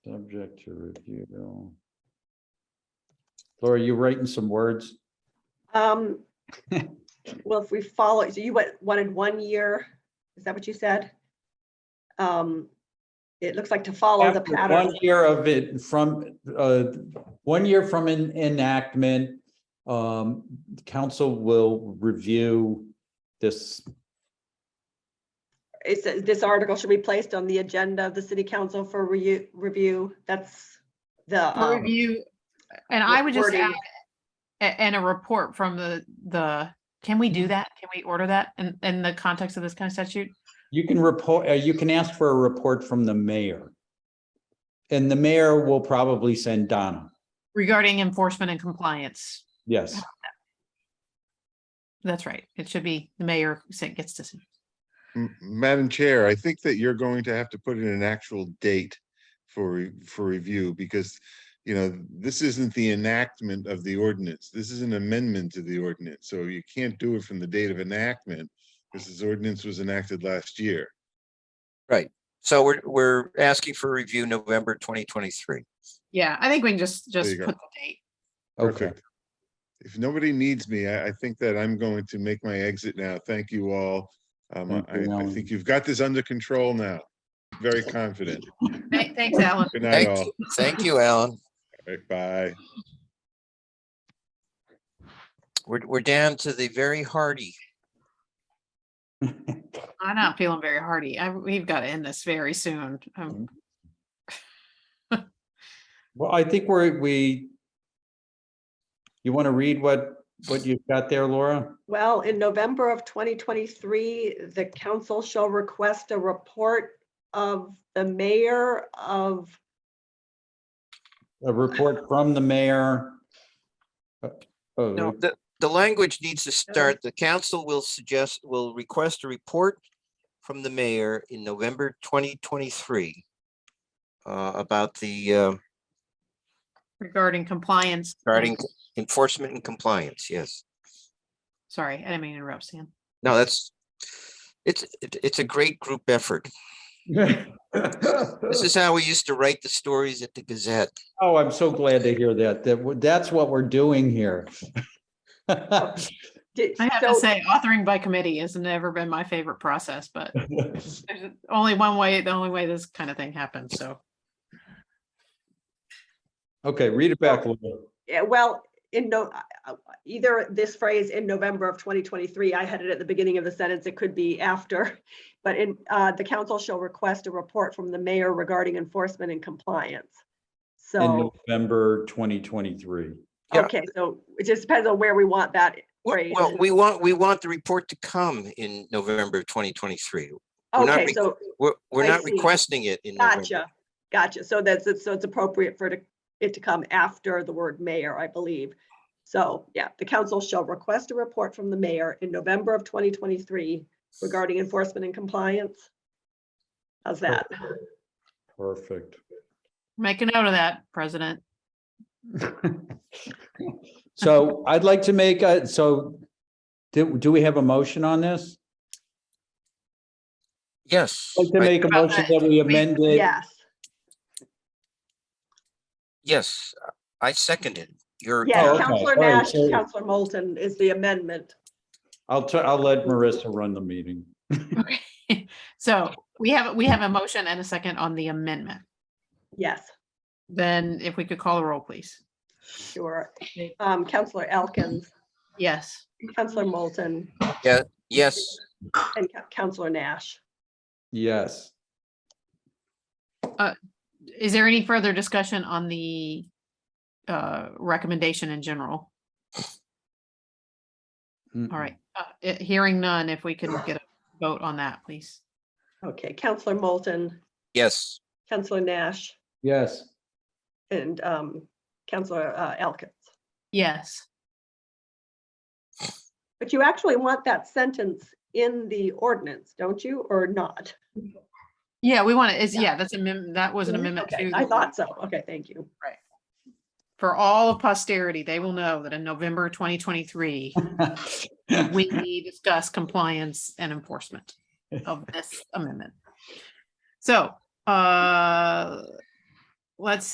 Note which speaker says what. Speaker 1: Subject to review. Laura, you writing some words?
Speaker 2: Um, well, if we follow, so you went, wanted one year, is that what you said? Um, it looks like to follow Oh, the
Speaker 1: After
Speaker 2: pattern.
Speaker 1: One year of it from, uh, one year from en- enactment, um, council will review this.
Speaker 2: It says this article should be placed on the agenda of the city council for reu- review. That's the,
Speaker 3: For
Speaker 2: um,
Speaker 3: review, and I would just add,
Speaker 2: reporting.
Speaker 3: a- and a report from the, the, can we do that? Can we order that in, in the context of this kind of statute?
Speaker 1: You can report, uh, you can ask for a report from the mayor. And the mayor will probably send Donna.
Speaker 3: Regarding enforcement and compliance,
Speaker 1: Yes,
Speaker 3: that's right, it should be the mayor who sa- gets to.
Speaker 4: M- Madam Chair, I think that you're going to have to put in an actual date for, re- for review because, you know, this isn't the enactment of the ordinance. This is an amendment to the ordinance. So you can't do it from the date of enactment. because This ordinance was enacted last year.
Speaker 5: So we're, we're asking for review November 2023.
Speaker 3: Yeah, I think we can just, just
Speaker 4: you go.
Speaker 3: put the date.
Speaker 1: okay.
Speaker 4: Perfect. If nobody needs me, I, I think that I'm going to make my exit now. Thank you all. Um,
Speaker 1: Thank
Speaker 4: I,
Speaker 1: you,
Speaker 4: I
Speaker 1: Alan.
Speaker 4: think you've got this under control now. Very confident.
Speaker 3: Thank- Thanks, Alan.
Speaker 4: Good night,
Speaker 5: Thank
Speaker 4: all.
Speaker 5: you, thank you, Alan.
Speaker 4: All right, Bye.
Speaker 5: We're, we're down to the very hardy.
Speaker 3: I'm not feeling very hearty. I, we've got to end this very soon. Um,
Speaker 1: Well, I think we're, we. You want to read what, what you've got there, Laura?
Speaker 2: well, in November of 2023, the council shall request a report of the mayor of
Speaker 1: A report from the mayor. uh, of-
Speaker 5: No, the, the language needs to start, the council will suggest, will request a report from the mayor in November 2023 uh, about the uh,
Speaker 4: Mm-hmm.
Speaker 3: Regarding compliance.
Speaker 5: regarding enforcement and compliance, yes.
Speaker 3: Sorry, I didn't mean to interrupt, Sam.
Speaker 5: No, that's, it's, it- it's a great group effort. This is how we used to write the stories at the Gazette.
Speaker 1: Oh, I'm so glad to hear that. That, w- that's what we're doing here.
Speaker 2: did-
Speaker 3: I have to
Speaker 2: so-
Speaker 3: say, authoring by committee has never been my favorite process, but there's only one way, the only way this kind of thing happens, so.
Speaker 1: Okay, read it back. Laura.
Speaker 2: Yeah, well, in no, I- I- either this phrase in November of 2023, I had it at the beginning of the sentence, it could be after. But in, uh, the council shall request a report from the mayor regarding enforcement and compliance.
Speaker 1: In
Speaker 2: So,
Speaker 1: November 2023.
Speaker 5: yeah.
Speaker 2: okay, so it just depends on where we want that.
Speaker 5: Well,
Speaker 2: Right,
Speaker 5: well,
Speaker 2: and-
Speaker 5: we want, we want the report to come in November of 2023. We're not
Speaker 2: Okay,
Speaker 5: re-
Speaker 2: so
Speaker 5: We're, we're
Speaker 2: I
Speaker 5: not
Speaker 2: see.
Speaker 5: requesting it in November.
Speaker 2: gotcha, gotcha. So that's, it's- so it's appropriate for it to- it to come after the word mayor, I believe. So, yeah, the council shall request a report from the mayor in November of 2023 regarding enforcement and compliance. How's that?
Speaker 1: Perfect.
Speaker 3: Make a note of that, President.
Speaker 1: So I'd like to make, a so do, do we have a motion on this?
Speaker 5: Yes,
Speaker 1: I'd Like to
Speaker 5: I-
Speaker 1: make a motion that we amended.
Speaker 2: Yes,
Speaker 5: yes, I seconded your.
Speaker 2: yeah,
Speaker 1: Oh, okay.
Speaker 2: Counselor
Speaker 1: All right,
Speaker 2: Nash,
Speaker 1: so-
Speaker 2: Counselor Moulton is the amendment.
Speaker 1: I'll, tu- I'll let Marissa run the meeting.
Speaker 3: Okay. So we have, we have a motion and a second on the amendment.
Speaker 2: Yes,
Speaker 3: Then if we could call a roll, please.
Speaker 2: sure. Um, Counselor Elkins,
Speaker 3: Yes.
Speaker 2: Counselor Moulton,
Speaker 5: Yes,
Speaker 2: and Coun- Counselor Nash.
Speaker 1: Yes.
Speaker 3: Is there any further discussion on the uh, recommendation in general? All right, uh, eh, hearing none, if we can get a vote on that, please.
Speaker 2: Okay, Counselor Moulton,
Speaker 5: yes,
Speaker 2: Counselor Nash,
Speaker 1: Yes.
Speaker 2: and um, Counselor uh, Elkins.
Speaker 3: Yes.
Speaker 2: But you actually want that sentence in the ordinance, don't you, or not?
Speaker 3: Yeah, we want to, is, yeah, that's amendment, that was an amendment
Speaker 2: Okay,
Speaker 3: to.
Speaker 2: I
Speaker 3: the-
Speaker 2: thought so. Okay, thank you.
Speaker 3: For all of posterity, they will know that in November twenty twenty-three, we discuss compliance and enforcement of this amendment. So, uh, let's